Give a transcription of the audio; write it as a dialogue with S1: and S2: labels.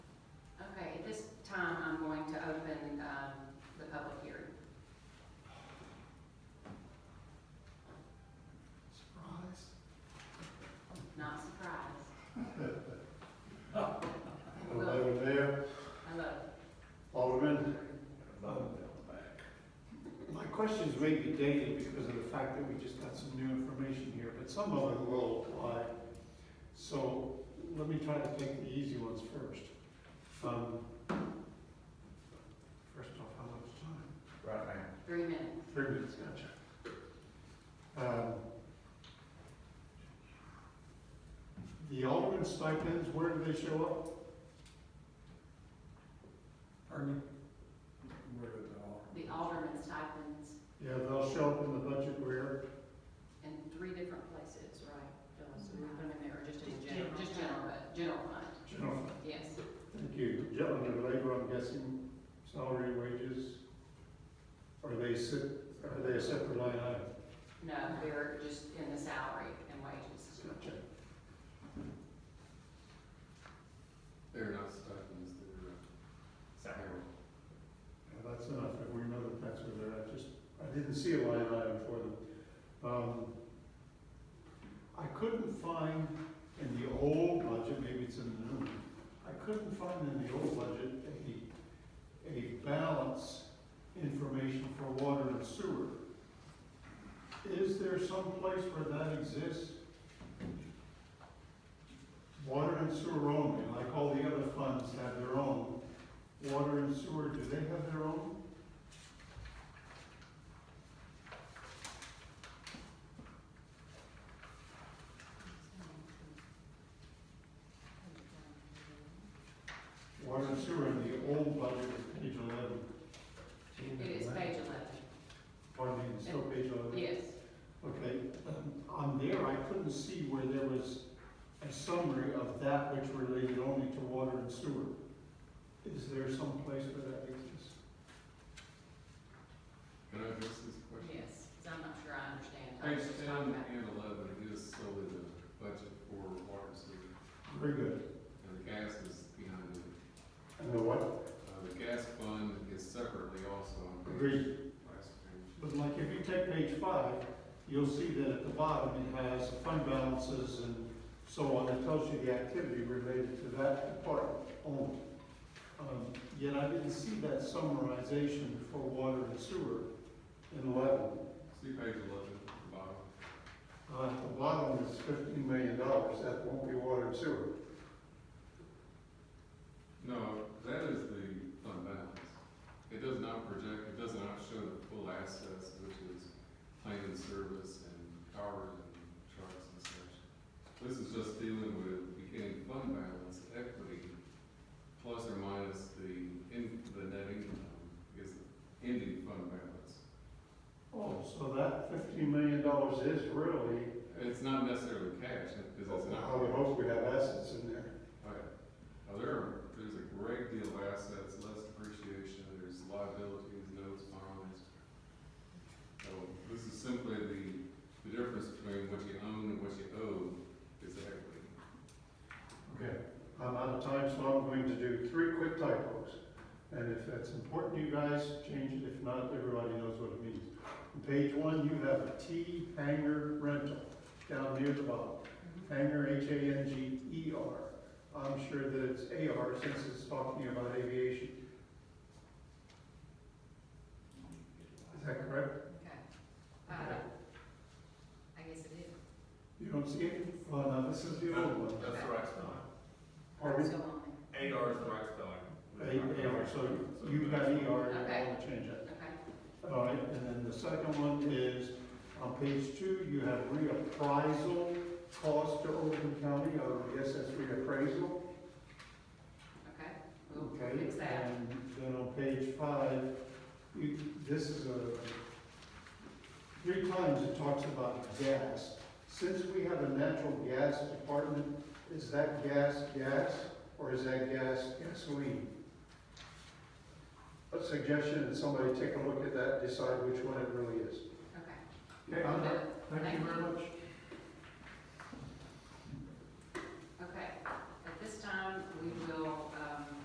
S1: um,
S2: questions may be dated because of the fact that we just got some new information here, but some of it will apply. So let me try to take the easy ones first. Um, First off, how much time?
S3: Right, man.
S1: Three minutes.
S2: Three minutes, gotcha. Um, The Alderman stipends, where do they show up?
S3: Pardon me?
S1: The alderman's stipends
S2: Yeah, they'll show up in the budget where?
S1: in three different places, right? Bill? So we put them in there, or just in general, just general, but general fund,
S2: General fund.
S1: yes.
S2: Thank you. Yeah, under labor, I'm guessing salary, wages, are they se- are they a separate line item?
S1: No, they're just in the salary and wages.
S2: Gotcha.
S4: They're not stipends, they're uh, salary.
S2: Yeah, that's enough, if we know that that's where they're at, just, I didn't see a line item for them. Um, I couldn't find in the old budget, maybe it's in the new one, I couldn't find in the old budget a, a balance information for water and sewer. Is there some place where that exists? Water and sewer only, like all the other funds have their own, Water and sewer, do they have their own? Water and sewer in the old budget is page eleven,
S1: It is page eleven,
S2: pardon me, it's still page eleven?
S1: yes.
S2: Okay, um, on there, I couldn't see where there was a summary of that which related only to water and sewer. Is there some place where that exists?
S4: Can I address this question?
S1: Yes, 'cause I'm not sure I understand. I was
S4: Page
S1: just
S4: ten
S1: talking about-
S4: and eleven is solely the budget for water and sewer,
S2: Very good.
S4: and the gas is behind it.
S2: And the what?
S4: Uh, the gas fund is separately also on
S2: Agreed.
S4: page, last page.
S2: But like, if you take page five, you'll see that at the bottom, it has fund balances and so on, it tells you the activity related to that department only. Um, Yet I didn't see that summarization for water and sewer in eleven.
S4: See page eleven, at the bottom.
S2: Uh, at the bottom is fifteen million dollars, that won't be water and sewer.
S4: No, that is the fund balance. It does not project, it does not show the full assets, which is plan and service and towers and trucks and such. This is just dealing with beginning fund balance equity, plus or minus the in, the net income is ending fund balance.
S2: Oh, so that fifteen million dollars is really,
S4: It's not necessarily cash, because it's not.
S2: I would hope we have assets in there.
S4: Right. Now, there are, there's a great deal of assets, less depreciation, there's liabilities, notes, bonds. So this is simply the, the difference between what you own and what you owe is the equity.
S2: Okay, I'm out of time, so I'm going to do three quick typos. And if that's important to you guys, change it, if not, everybody knows what it means. On Page one, you have a T hanger rental down near the bottom. Hanger, H-A-N-G-E-R. E I'm sure that it's A-R since it's talking about aviation. Is that correct?
S1: Okay. Uh, I guess it is.
S2: You don't see it? Well, no, this is the old one.
S1: That's the
S4: right
S2: Pardon me?
S1: Still on
S4: AR is the right spelling.
S2: A- A-R, so you've got E-R, I want to change that.
S1: there. Okay.
S2: All right, and then the second one is, on page two, you have reappraisal cost to Oakland County, or yes, that's reappraisal.
S1: Okay. We'll
S2: Okay,
S1: fix that.
S2: and then on page five, you, this is a, three times it talks about gas. Since we have a natural gas department, is that gas gas, or is that gas gasoline? A suggestion, that somebody take a look at that, decide which one it really is.
S1: Okay.
S2: Okay, I'm done.
S1: Thank you.
S2: much.
S1: um,